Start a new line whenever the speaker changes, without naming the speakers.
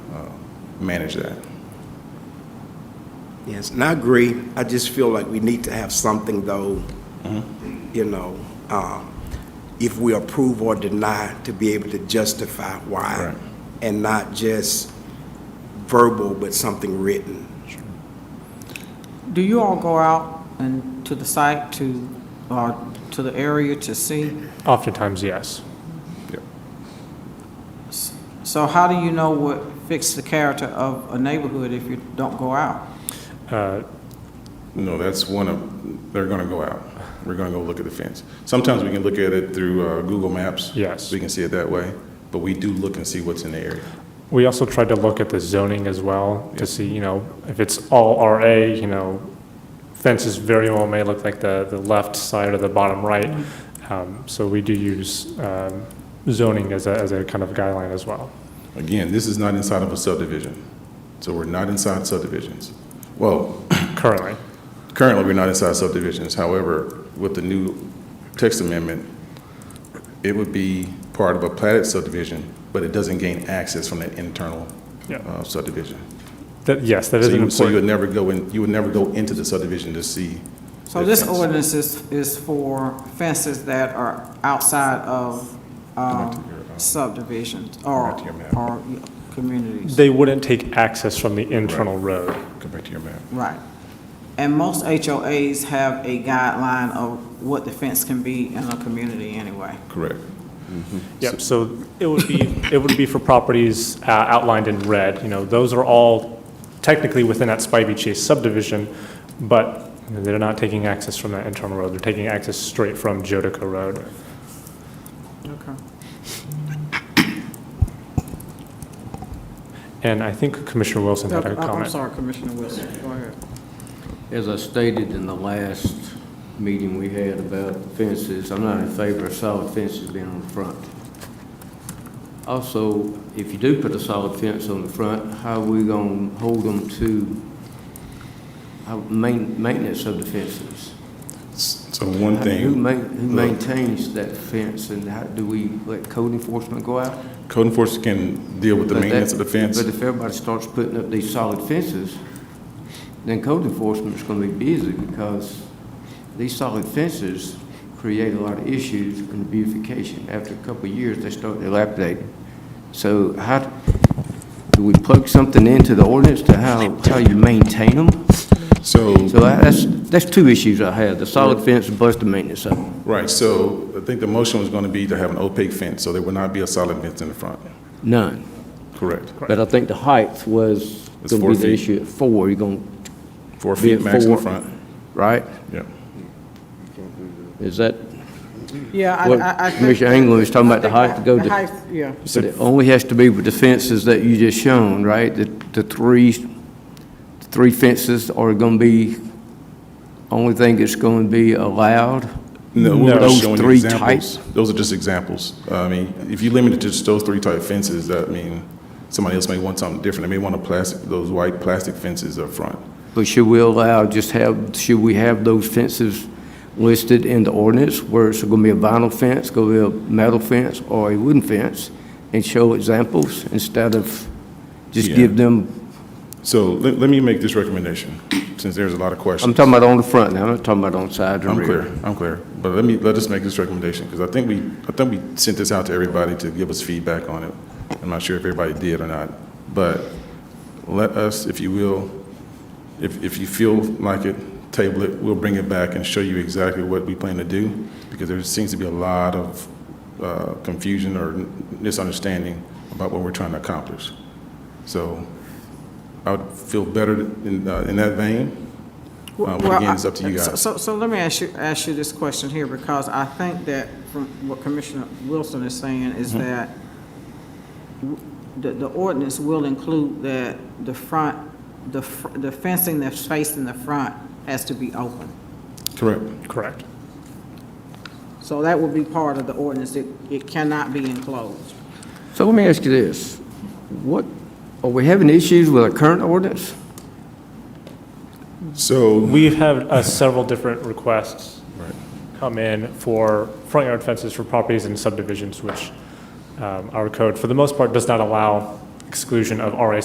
uh, manage that.
Yes, and I agree. I just feel like we need to have something, though, you know, um, if we approve or deny, to be able to justify why.
Right.
And not just verbal, but something written.
Do you all go out and to the site to, or to the area to see?
Oftentimes, yes.
So how do you know what fits the character of a neighborhood if you don't go out?
Uh,
No, that's one of, they're gonna go out. We're gonna go look at the fence. Sometimes we can look at it through uh, Google Maps.
Yes.
We can see it that way, but we do look and see what's in the area.
We also tried to look at the zoning as well to see, you know, if it's all RA, you know, fences very well may look like the, the left side or the bottom right. Um, So we do use um, zoning as a, as a kind of guideline as well.
Again, this is not inside of a subdivision, so we're not inside subdivisions. Well,
Currently,
currently, we're not inside subdivisions. However, with the new text amendment, it would be part of a platted subdivision, but it doesn't gain access from that internal
Yeah.
uh, subdivision.
that, yes, that is
So
an
you, so you would
important.
never go in, you would never go into the subdivision to see.
So
the
this
fence.
ordinance is, is for fences that are outside of
Come back
um,
to your, uh,
subdivisions or,
back to your map.
or communities.
They wouldn't take access from the internal road.
Go back to your map.
Right. And most HOAs have a guideline of what the fence can be in a community anyway.
Correct.
Yep, so it would be, it would be for properties uh, outlined in red, you know, those are all technically within that Spivey Chase subdivision, but they're not taking access from that internal road, they're taking access straight from Jodica Road.
Okay.
And I think Commissioner Wilson had a
Oh, I'm
comment.
sorry, Commissioner Wilson, go ahead.
As I stated in the last meeting we had about fences, I'm not in favor of solid fences being on the front. Also, if you do put a solid fence on the front, how are we going to hold them to how- main- maintenance of the fences?
So one
Who
thing,
ma- who maintains that fence, and how, do we let code enforcement go out?
code enforcement can deal with the
But that-
maintenance of the fence.
But if everybody starts putting up these solid fences, then code enforcement's gonna be busy because these solid fences create a lot of issues in beautification. After a couple of years, they start dilapidating. So how, do we plug something into the ordinance to how, how you maintain them?
So,
So I- that's, that's two issues I have, the solid fence plus the maintenance of them.
right, so I think the motion was going to be to have an opaque fence, so there would not be a solid fence in the front.
None.
Correct.
But I think the height was
It's
gonna
four
be the
feet.
issue at four, you're gonna,
Four
Be
feet
at
max in the
four.
front.
right?
Yeah.
Is that
Yeah, I,
What
I, I think.
Commissioner England was talking about the height to go
The
to-
height, yeah.
But it only has to be with the fences that you just shown, right? The, the three, the three fences are gonna be, only thing that's gonna be allowed?
No, we were
Those
just showing you
three
examples.
types?
Those are just examples. Uh, I mean, if you limit it to just those three type fences, that mean, somebody else may want something different. They may want a plastic, those white plastic fences up front.
But should we allow, just have, should we have those fences listed in the ordinance where it's gonna be a vinyl fence, gonna be a metal fence, or a wooden fence? And show examples instead of just
Yeah.
give them,
So let, let me make this recommendation, since there's a lot of questions.
I'm talking about on the front now, I'm not talking about on sides or
I'm
rear.
clear, I'm clear. But let me, let us make this recommendation, because I think we, I think we sent this out to everybody to give us feedback on it. I'm not sure if everybody did or not, but let us, if you will, if, if you feel like it, table it, we'll bring it back and show you exactly what we plan to do, because there seems to be a lot of uh, confusion or misunderstanding about what we're trying to accomplish. So I would feel better in, uh, in that vein. Uh, but
Well,
again, it's
I-
up to you
so-
guys.
So, so let me ask you, ask you this question here, because I think that from what Commissioner Wilson is saying is
Mm-hmm.
that w- the, the ordinance will include that the front, the, fr- the fencing that's facing the front has to be open.
Correct.
Correct.
So that would be part of the ordinance. It, it cannot be enclosed.
So let me ask you this. What, are we having issues with our current ordinance?
So
We've had uh, several different requests come in for front yard fences for properties and subdivisions, which um, our code, for the most part, does not allow exclusion of RA